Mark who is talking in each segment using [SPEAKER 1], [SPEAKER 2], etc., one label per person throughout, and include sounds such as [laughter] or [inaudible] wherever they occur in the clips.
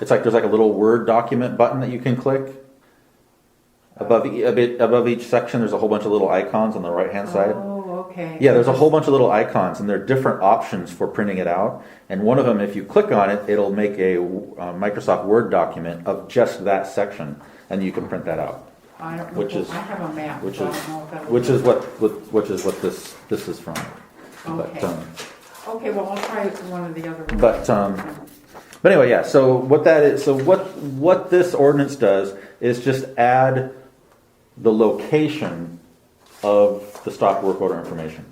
[SPEAKER 1] It's like, there's like a little Word document button that you can click. Above, e- a bit, above each section, there's a whole bunch of little icons on the right-hand side.
[SPEAKER 2] Oh, okay.
[SPEAKER 1] Yeah, there's a whole bunch of little icons, and there are different options for printing it out. And one of them, if you click on it, it'll make a uh, Microsoft Word document of just that section, and you can print that out.
[SPEAKER 2] I don't know.
[SPEAKER 1] which is-
[SPEAKER 2] I have a map,
[SPEAKER 1] Which
[SPEAKER 2] so I
[SPEAKER 1] is,
[SPEAKER 2] don't know if that'll.
[SPEAKER 1] which is what, what- which is what this, this is from. But,
[SPEAKER 2] Okay.
[SPEAKER 1] um,
[SPEAKER 2] Okay, well, I'll try one of the other. ones.
[SPEAKER 1] But, um, But anyway, yeah. So what that is, so what what this ordinance does is just add the location of the stop work order information.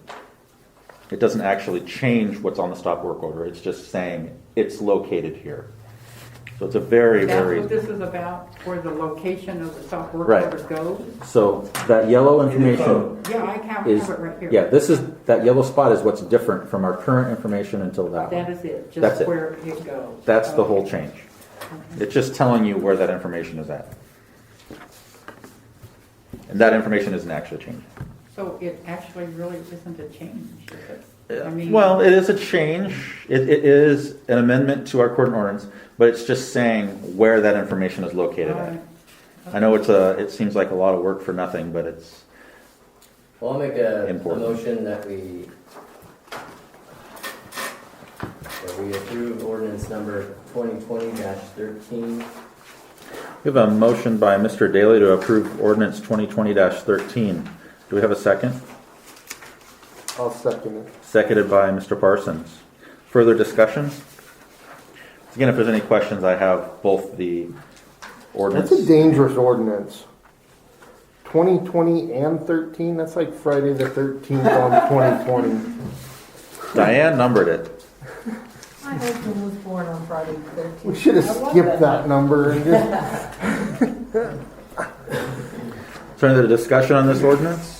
[SPEAKER 1] It doesn't actually change what's on the stop work order. It's just saying it's located here. So it's a very
[SPEAKER 2] That's
[SPEAKER 1] very
[SPEAKER 2] what this is about, where the location of the stop work
[SPEAKER 1] Right.
[SPEAKER 2] order goes?
[SPEAKER 1] so that yellow
[SPEAKER 3] code.
[SPEAKER 1] information
[SPEAKER 2] Yeah, I have,
[SPEAKER 1] is
[SPEAKER 2] have it right here.
[SPEAKER 1] yeah. This is that yellow spot is what's different from our current information until that. one.
[SPEAKER 2] That is it,
[SPEAKER 1] That's
[SPEAKER 2] just
[SPEAKER 1] it.
[SPEAKER 2] where it goes.
[SPEAKER 1] That's the
[SPEAKER 2] Okay.
[SPEAKER 1] whole change. It's just telling you where that information is at. And that information isn't actually changing.
[SPEAKER 2] So it actually really isn't a change, is it? I mean,
[SPEAKER 1] Well, it is a change. It, it is an amendment to our court ordinance, but it's just saying where that information is located
[SPEAKER 2] all
[SPEAKER 1] at.
[SPEAKER 2] right.
[SPEAKER 1] I know it's a, it seems like a lot of work for nothing, but it's,
[SPEAKER 3] Well, I'll make a, a
[SPEAKER 1] Important.
[SPEAKER 3] motion that we, that we approve ordinance number twenty twenty thirteen.
[SPEAKER 1] we have a motion by Mr. Daly to approve ordinance twenty twenty thirteen. Do we have a second?
[SPEAKER 4] I'll second it.
[SPEAKER 1] Seconded by Mr. Parsons. Further discussion? Again, if there's any questions, I have both the ordinance.
[SPEAKER 4] That's a dangerous ordinance. Twenty twenty and thirteen, that's like Friday the thirteenth [laughs] on twenty twenty.
[SPEAKER 1] Diane numbered it.
[SPEAKER 5] My husband was born on Friday the
[SPEAKER 4] We
[SPEAKER 5] thirteenth.
[SPEAKER 4] should have skipped that number [laughs] and just,
[SPEAKER 1] Is there any other discussion on this ordinance?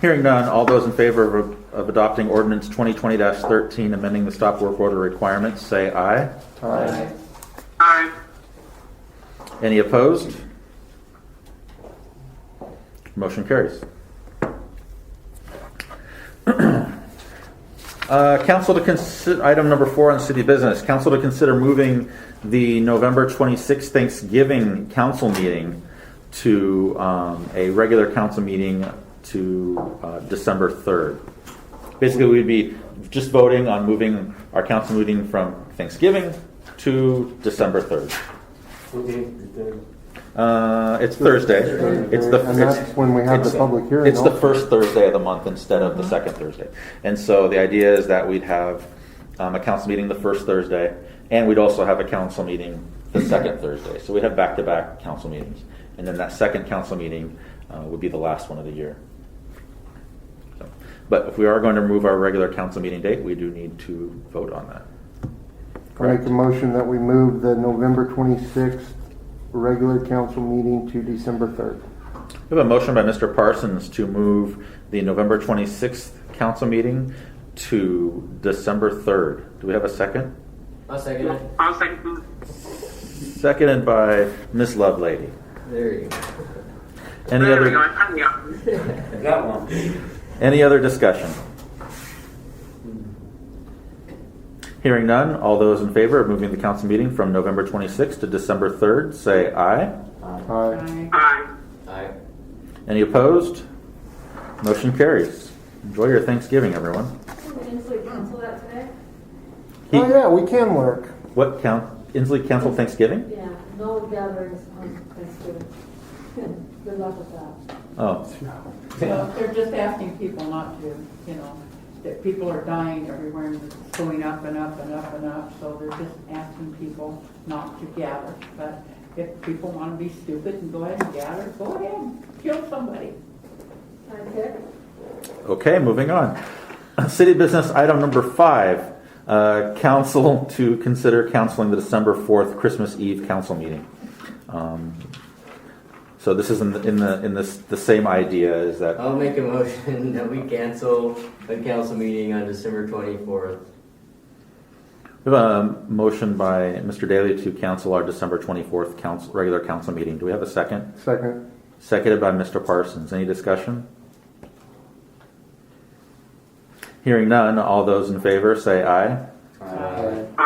[SPEAKER 1] Hearing none, all those in favor of, of adopting ordinance twenty twenty thirteen, amending the stop work order requirements, say aye.
[SPEAKER 4] Aye.
[SPEAKER 1] Any opposed? Motion carries. [clears throat] Uh, Council to consider, item number four on city business, council to consider moving the November 26th Thanksgiving council meeting to um, a regular council meeting to uh, December 3rd. Basically, we'd be just voting on moving our council meeting from Thanksgiving to December 3rd. Uh, it's Thursday. It's the.
[SPEAKER 4] And that's when we have the
[SPEAKER 1] it's-
[SPEAKER 4] public hearing,
[SPEAKER 1] It's the
[SPEAKER 4] also.
[SPEAKER 1] first Thursday of the month instead of the second Thursday. And so the idea is that we'd have um, a council meeting the first Thursday, and we'd also have a council meeting the second Thursday. So we'd have back-to-back council meetings. And then that second council meeting uh, would be the last one of the year. So- But if we are going to move our regular council meeting date, we do need to vote on that.
[SPEAKER 4] I make a motion that we move the November twenty-sixth regular council meeting to December third.
[SPEAKER 1] We have a motion by Mr. Parsons to move the November 26th council meeting to December 3rd. Do we have a second?
[SPEAKER 3] I'll second it.
[SPEAKER 6] I'll second.
[SPEAKER 1] Seconded by Ms. Lovelady.
[SPEAKER 3] There you go.
[SPEAKER 1] Any
[SPEAKER 6] there we go.
[SPEAKER 1] other,
[SPEAKER 6] I'm coming up.
[SPEAKER 3] That one.
[SPEAKER 1] any other discussion?
[SPEAKER 3] Hmm.
[SPEAKER 1] Hearing none, all those in favor of moving the council meeting from November 26th to December 3rd, say aye.
[SPEAKER 4] Aye.
[SPEAKER 6] Aye.
[SPEAKER 3] Aye.
[SPEAKER 1] Any opposed? Motion carries. Enjoy your Thanksgiving, everyone.
[SPEAKER 7] Inslee cancel that today?
[SPEAKER 1] He-
[SPEAKER 4] Oh, yeah, we can work.
[SPEAKER 1] What, coun- Inslee canceled Thanksgiving?
[SPEAKER 7] Yeah, no gatherings on Thanksgiving. [laughs] Good luck with that.
[SPEAKER 1] Oh,
[SPEAKER 2] Well, they're just asking people not to, you know, that people are dying everywhere and it's going up and up and up and up, so they're just asking people not to gather. But if people want to be stupid and go ahead and gather, go ahead, kill somebody.
[SPEAKER 7] Can I pick?
[SPEAKER 1] Okay, moving on. [clears throat] City business item number five, uh, council [laughs] to consider canceling the December 4th Christmas Eve council meeting. Um, So this is in the, in the, in this, the same idea is that,
[SPEAKER 3] I'll make a motion [laughs] that we cancel the council meeting on December twenty-fourth.
[SPEAKER 1] we have a motion by Mr. Daly to cancel our December 24th council, regular council meeting. Do we have a second?
[SPEAKER 4] Second.
[SPEAKER 1] Seconded by Mr. Parsons. Any discussion? Hearing none, all those in favor say aye.
[SPEAKER 3] Aye.